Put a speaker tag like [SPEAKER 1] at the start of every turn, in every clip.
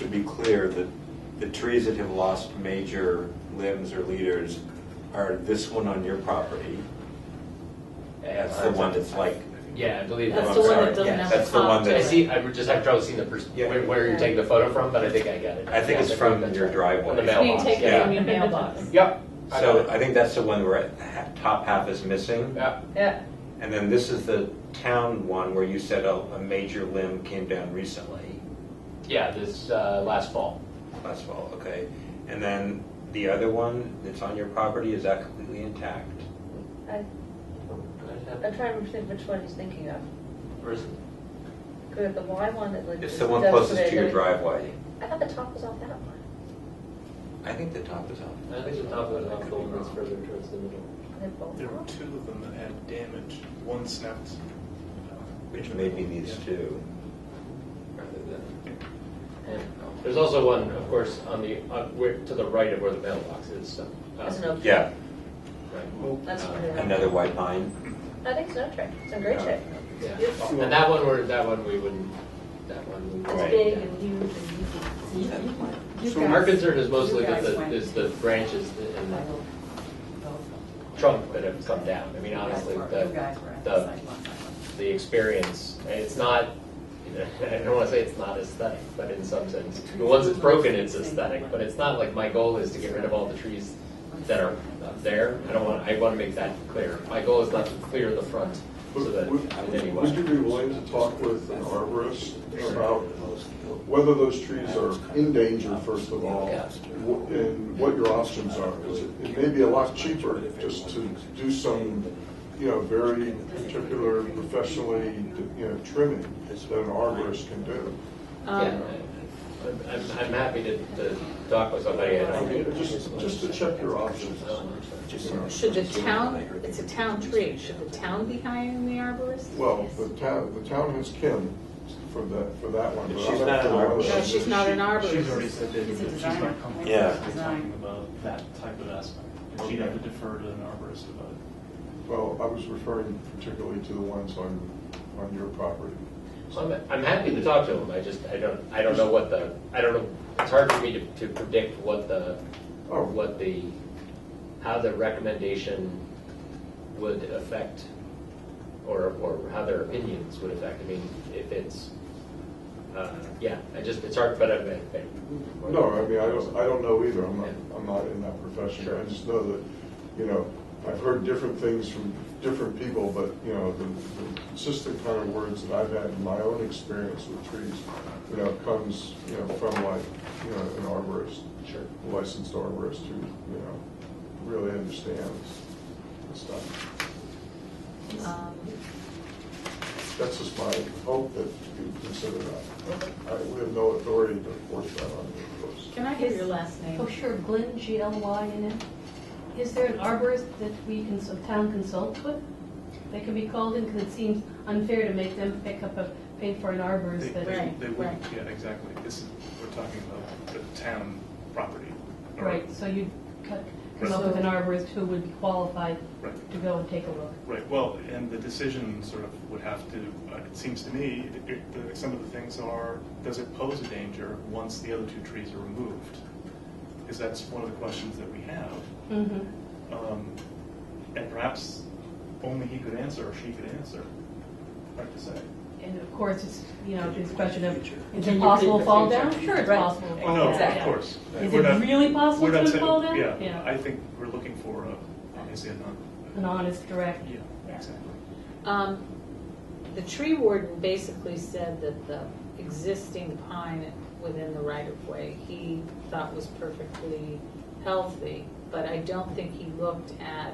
[SPEAKER 1] To be clear, the, the trees that have lost major limbs or leaders are this one on your property. That's the one that's like,
[SPEAKER 2] Yeah, I believe.
[SPEAKER 3] That's
[SPEAKER 1] I'm
[SPEAKER 3] the one
[SPEAKER 1] sorry.
[SPEAKER 3] that doesn't
[SPEAKER 2] Yeah.
[SPEAKER 3] have
[SPEAKER 1] That's
[SPEAKER 3] the
[SPEAKER 1] the
[SPEAKER 3] top
[SPEAKER 1] one
[SPEAKER 3] to
[SPEAKER 1] that-
[SPEAKER 2] I
[SPEAKER 3] it.
[SPEAKER 2] see, I'm just having trouble seeing the, pers-
[SPEAKER 1] Yeah.
[SPEAKER 2] where, where you're taking the photo from, but I think I got it.
[SPEAKER 1] I think
[SPEAKER 2] Yeah,
[SPEAKER 1] it's
[SPEAKER 2] I
[SPEAKER 1] from
[SPEAKER 2] that's
[SPEAKER 1] your
[SPEAKER 2] right.
[SPEAKER 1] driveway.
[SPEAKER 2] On the
[SPEAKER 3] You
[SPEAKER 2] mailbox,
[SPEAKER 3] take it
[SPEAKER 1] Yeah.
[SPEAKER 3] from
[SPEAKER 2] yeah.
[SPEAKER 3] your mailbox.
[SPEAKER 2] Yep. I
[SPEAKER 1] so
[SPEAKER 2] got it.
[SPEAKER 1] I think that's the one where the ha- top half is missing.
[SPEAKER 2] Yeah,
[SPEAKER 3] Yeah,
[SPEAKER 1] And then this is the town one where you said oh, a, a major limb came down recently,
[SPEAKER 2] yeah, this, uh, last fall.
[SPEAKER 1] last fall, okay? And then the other one that's on your property, is that completely intact?
[SPEAKER 4] I, I'm trying to think which one he's thinking of.
[SPEAKER 2] Where's-
[SPEAKER 4] Good, the Y one that like.
[SPEAKER 1] It's
[SPEAKER 4] is
[SPEAKER 1] the one
[SPEAKER 4] devastated.
[SPEAKER 1] closest to your driveway.
[SPEAKER 4] I thought the top was off that one.
[SPEAKER 1] I think the top is on.
[SPEAKER 2] I think the top one, not the one that's further towards the middle.
[SPEAKER 4] They both
[SPEAKER 5] There were
[SPEAKER 4] off.
[SPEAKER 5] two of them that had damage. One snapped. uh,
[SPEAKER 1] Which may be these
[SPEAKER 5] Yeah.
[SPEAKER 1] two.
[SPEAKER 2] rather than-
[SPEAKER 4] Yeah.
[SPEAKER 2] There's also one, of course, on the, on, where, to the right of where the mailbox is, so. uh,
[SPEAKER 4] That's an oak.
[SPEAKER 1] Yeah,
[SPEAKER 2] right.
[SPEAKER 5] Well,
[SPEAKER 4] That's
[SPEAKER 2] Uh,
[SPEAKER 4] what it is.
[SPEAKER 1] another white pine.
[SPEAKER 4] I think it's an oak tree. It's in great
[SPEAKER 1] Yeah.
[SPEAKER 4] shape.
[SPEAKER 2] Yeah,
[SPEAKER 4] Beautiful.
[SPEAKER 2] and that one, we're, that one we wouldn't, that one. we wouldn't-
[SPEAKER 3] it's
[SPEAKER 1] Right.
[SPEAKER 3] big and huge and you can- you- you
[SPEAKER 2] So our
[SPEAKER 3] guys-
[SPEAKER 2] concern is
[SPEAKER 3] you
[SPEAKER 2] mostly with
[SPEAKER 3] guys
[SPEAKER 2] the,
[SPEAKER 3] went-
[SPEAKER 2] is the branches and the trunk that have come down. I mean, honestly,
[SPEAKER 3] You guys were- you
[SPEAKER 2] the,
[SPEAKER 3] guys were at the
[SPEAKER 2] the,
[SPEAKER 3] sidewalk, sidewalk.
[SPEAKER 2] the experience, and it's not, I don't wanna say it's not aesthetic, but in some sense, I mean, once it's broken, it's aesthetic, but it's not like, my goal is to get rid of all the trees that are up there. I don't want, I wanna make that clear. My goal is not to clear the front so that in any
[SPEAKER 6] Would you
[SPEAKER 2] way.
[SPEAKER 6] be willing to talk with an arborist about whether those trees are in danger, first of all,
[SPEAKER 2] Yeah.
[SPEAKER 6] wh- and what your options are? 'Cause It it may be a lot cheaper just to do some, you know, very particular professionally, you know, trimming that an arborist can do.
[SPEAKER 2] Yeah,
[SPEAKER 3] Um,
[SPEAKER 2] I'm, I'm- I'm happy to, to talk with somebody. I
[SPEAKER 6] I
[SPEAKER 2] don't
[SPEAKER 6] mean, just, just to check your options. you know.
[SPEAKER 3] Should the town, it's a town tree, should the town be hiring the arborist?
[SPEAKER 6] Well, the town, the town has Kim for that, for that one.
[SPEAKER 1] But
[SPEAKER 6] but
[SPEAKER 1] she's
[SPEAKER 6] I'll
[SPEAKER 1] not an
[SPEAKER 6] have to-
[SPEAKER 1] arborist.
[SPEAKER 3] No, she's not an arborist.
[SPEAKER 7] She's already said that
[SPEAKER 3] She's a
[SPEAKER 7] that she's
[SPEAKER 3] designer.
[SPEAKER 7] not comfortable
[SPEAKER 1] Yeah.
[SPEAKER 7] with talking about that type of aspect. And She'd have to defer to an arborist about it.
[SPEAKER 6] Well, I was referring particularly to the ones on, on your property.
[SPEAKER 2] I'm, I'm happy to talk to them, I just, I don't, I don't know what the, I don't know, it's hard for me to, to predict what the,
[SPEAKER 6] Oh.
[SPEAKER 2] what the, how the recommendation would affect, or, or how their opinions would affect, I mean, if it's, uh, yeah, I just, it's hard, but I'm. I-
[SPEAKER 6] No, I mean, I don't, I don't know either, I'm not, I'm not in that profession. I just know that, you know, I've heard different things from different people, but, you know, the the consistent kind of words that I've had in my own experience with trees, you know, comes, you know, from like, you know, an arborist,
[SPEAKER 2] Sure.
[SPEAKER 6] licensed arborist who, you know, really understands the stuff.
[SPEAKER 3] Um,
[SPEAKER 6] That's just my hope that you consider that. I- We have no authority to force that on you, of course.
[SPEAKER 3] Can I hear your last name?
[SPEAKER 8] Oh, sure, Glenn, G-L-Y in it. Is there an arborist that we can, so town consult with? They can be called in because it seems unfair to make them pick up a, pay for an arborist
[SPEAKER 5] They-
[SPEAKER 8] that.
[SPEAKER 5] They
[SPEAKER 3] Right,
[SPEAKER 5] they wouldn't, yeah, exactly. This is, we're talking about the town property. or-
[SPEAKER 8] Right, so you'd co- come
[SPEAKER 5] Right.
[SPEAKER 8] up with an arborist who would be qualified
[SPEAKER 5] Right.
[SPEAKER 8] to go and take a look.
[SPEAKER 5] Right, well, and the decision sort of would have to, uh, it seems to me, it- it- the- some of the things are, does it pose a danger once the other two trees are removed? Because that's one of the questions that we have.
[SPEAKER 8] Mhm.
[SPEAKER 5] Um, And perhaps only he could answer or she could answer, hard to say.
[SPEAKER 8] And of course, it's, you know, this question of, is
[SPEAKER 3] Can
[SPEAKER 8] it
[SPEAKER 3] you
[SPEAKER 8] possible
[SPEAKER 3] predict the
[SPEAKER 8] to fall
[SPEAKER 3] future?
[SPEAKER 8] down? Sure, it's
[SPEAKER 3] Right.
[SPEAKER 8] possible to
[SPEAKER 5] Oh,
[SPEAKER 8] fall
[SPEAKER 5] no,
[SPEAKER 8] down.
[SPEAKER 5] of
[SPEAKER 3] Exactly.
[SPEAKER 5] course.
[SPEAKER 8] Is
[SPEAKER 5] We're
[SPEAKER 8] it
[SPEAKER 5] not-
[SPEAKER 8] really possible
[SPEAKER 5] we're not
[SPEAKER 8] to
[SPEAKER 5] saying-
[SPEAKER 8] fall down?
[SPEAKER 5] Yeah,
[SPEAKER 8] Yeah.
[SPEAKER 5] I think we're looking for, a- obviously, a non,
[SPEAKER 8] An honest, direct.
[SPEAKER 5] yeah, exactly.
[SPEAKER 3] Um, The tree warden basically said that the existing pine within the right-of-way, he thought was perfectly healthy, but I don't think he looked at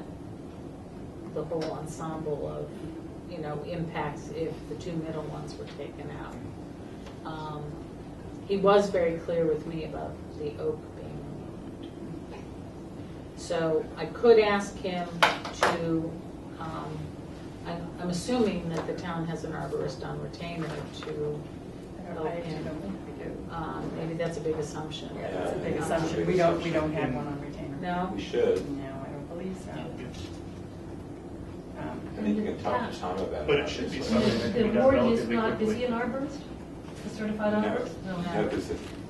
[SPEAKER 3] the whole ensemble of, you know, impacts if the two middle ones were taken out. Um, He was very clear with me about the oak being removed. So I could ask him to, um, I'm, I'm assuming that the town has an arborist on retainer to
[SPEAKER 9] I don't-
[SPEAKER 3] help
[SPEAKER 9] I actually
[SPEAKER 3] him.
[SPEAKER 9] don't think we do.
[SPEAKER 3] Um, maybe that's a big assumption.
[SPEAKER 9] Yeah, that's a big
[SPEAKER 1] Yeah.
[SPEAKER 9] assumption. We don't, we don't have one on retainer.
[SPEAKER 3] No?
[SPEAKER 1] We should.
[SPEAKER 9] No, I don't believe so. Um,
[SPEAKER 1] I think you can talk to Tom about it.
[SPEAKER 5] But it should be
[SPEAKER 1] obviously.
[SPEAKER 5] something that can
[SPEAKER 8] The
[SPEAKER 5] be done
[SPEAKER 8] warden is
[SPEAKER 5] relatively
[SPEAKER 8] not, is he
[SPEAKER 5] quickly.
[SPEAKER 8] an arborist? A certified
[SPEAKER 1] No.
[SPEAKER 8] arborist?
[SPEAKER 1] No, because the